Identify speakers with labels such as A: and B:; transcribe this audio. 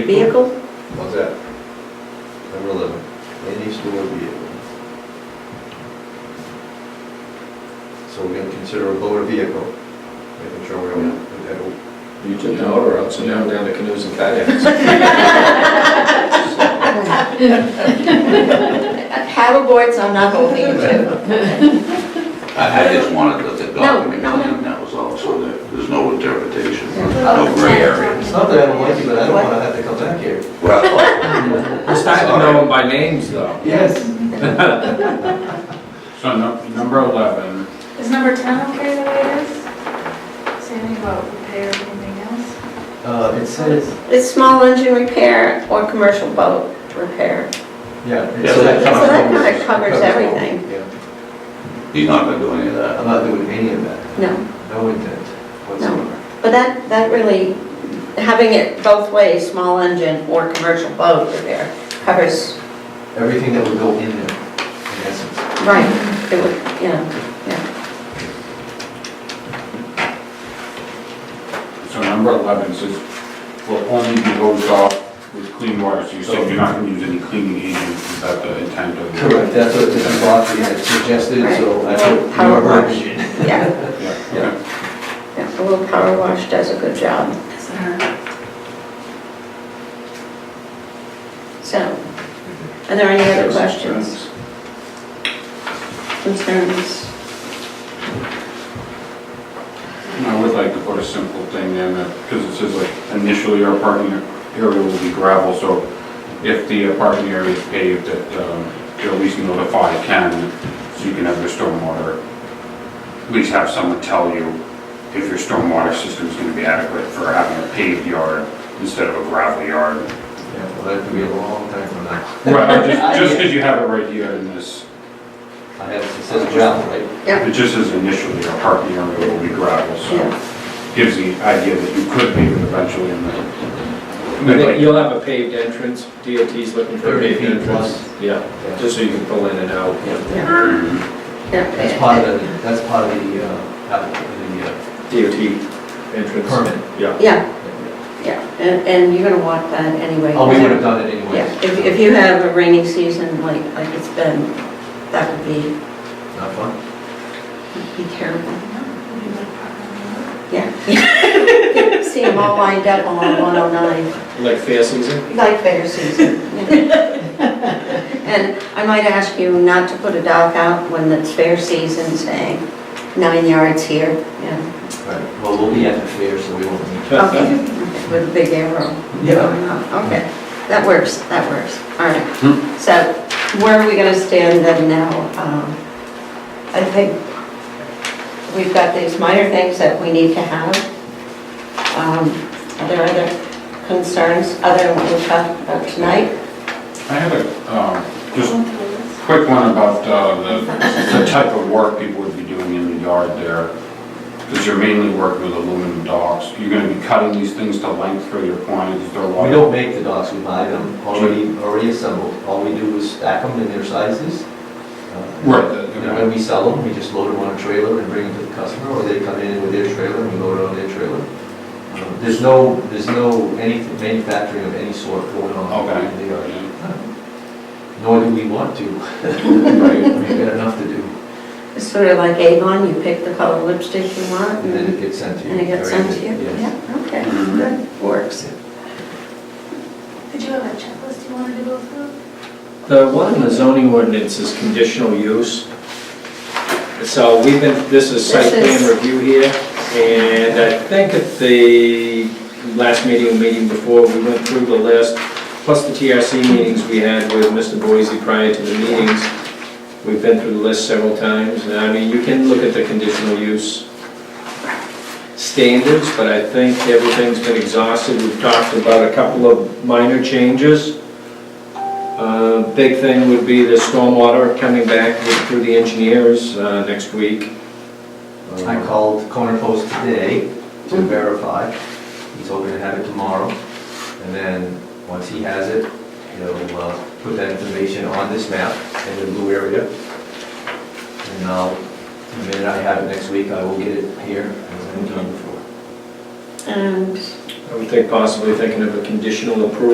A: vehicle?
B: What's that? Number eleven, any stored vehicle. So we're gonna consider a motor vehicle, making sure we don't, we don't-
C: You took the order out, so now I'm down to canoes and kayaks.
A: Paddleboards, I'm not holding you to.
D: I, I just wanted the the document
A: No, Oh, no, no.
D: clean, that was all, so there, there's no interpretation, no gray area.
B: it's not that I don't like you, but I don't wanna have to come back here.
D: Well,
C: It's time to know them by names, though.
B: Yes.
C: So num- number 11,
E: Is number 10 okay the way it is? Say anything about repair or anything else?
B: Uh, it says,
A: It's small engine repair or commercial boat repair.
B: yeah. it
D: Yeah,
B: says-
D: that
A: So that kind of covers
B: all.
A: everything.
B: Yeah,
D: he's not gonna do any of that.
B: I'm not doing any of that,
A: No,
B: no intent whatsoever.
A: but that, that really, having it both ways, small engine or commercial boat repair covers,
B: Everything that would go in there, in essence.
A: right, it would, you know,
F: So number 11 says, will only be hosed off with clean water, so you said you're not gonna use any cleaning agents, is that the intent of? the-
B: Correct, that's what Mrs. Lofty had suggested, so I put
A: Right. Power
B: your
A: wash.
B: verbiage in.
A: yeah,
F: Yeah,
B: Yeah.
F: okay.
A: yeah, a little power wash does a good job,
E: Does it hurt?
A: so. Are there any other questions, concerns?
F: And I would like to put a simple thing in, because it says like initially our parking area will be gravel, so if the parking area is paved, that um, you'll at least notify Ken, so you can have your stormwater, at least have someone tell you if your stormwater system's gonna be adequate for having a paved yard instead of a gravel yard.
B: Yeah, well, that could be a long time from now.
F: Right, just- just because you have it right here in this,
B: I have, it says gravel, right?
F: it just says initially our parking area will be gravel, so
A: Yeah,
F: gives the idea that you could pave it eventually in the.
C: You'll have a paved entrance, DOT's looking for a
B: 30
C: paved
B: feet
C: entrance. Yeah, just so you can pull in and out.
A: yeah,
F: Mm.
A: yeah.
B: That's part of the, that's part of the, uh, app-
C: DOT
B: the, uh,
C: entrance.
B: permit.
C: Yeah.
A: Yeah, yeah, and, and you're gonna want that anyway.
B: Oh, we would have done it anyway.
A: Yeah, if, if you have a rainy season like, like it's been, that would be,
B: Not fun?
A: be terrible.
E: Maybe like park
A: Yeah. See them all lined up on 109,
C: Like fair season?
A: like fair season. And I might ask you not to put a dock out when it's fair season, saying nine yards here, yeah.
B: Right, well, we'll be at the fair, so we won't need.
A: Okay, with a big arrow. Uh-huh.
B: Yeah.
A: Okay, that works, that works, all right. So where are we gonna stand then now? Um, I think we've got these minor things that we need to have. Um, Are there other concerns other than what we talked about tonight?
F: I had a, um, just
E: on the road.
F: quick one about uh, the the type of work people would be doing in the yard there, because you're mainly working with aluminum docks. You're going to be cutting these things to length for your quantities, they're
B: We
F: like...
B: don't make the docks, we buy them already, already assembled. All we do is stack them in their sizes. uh,
F: Right,
B: And
F: the-
B: when we sell them, we just load them on a trailer and bring them to the customer, or they come in with their trailer and we load it on their trailer. Um, There's no, there's no any manufacturing of any sort going on
F: Okay.
B: in the yard, nor do we want to.
F: Right.
B: We've got enough to do,
A: It's sort of like Avon, you pick the color lipstick you want
B: and then
A: and
B: it gets sent to you.
A: and it gets sent to you?
B: Yes.
A: Yeah, okay,
F: Mhm.
A: good, works.
E: Did you have a checklist you wanted to go through?
C: The one in the zoning ordinance is conditional use. So we've been, this is site
A: This is-
C: plan review here, and I think at the last meeting, meeting before, we went through the list, plus the TRC meetings we had with Mr. Boise prior to the meetings. We've been through the list several times, and I mean, you can look at the conditional use standards, but I think everything's been exhausted. We've talked about a couple of minor changes. Uh, Big thing would be the stormwater coming back with- through the engineers uh, next week.
B: I called Corner Post today to verify. He's hoping to have it tomorrow. And then, once he has it, he'll uh, put that information on this map in the blue area. And I'll, the minute I have it next week, I will get it here as I've done before.
A: And
C: I would think possibly thinking of a conditional approval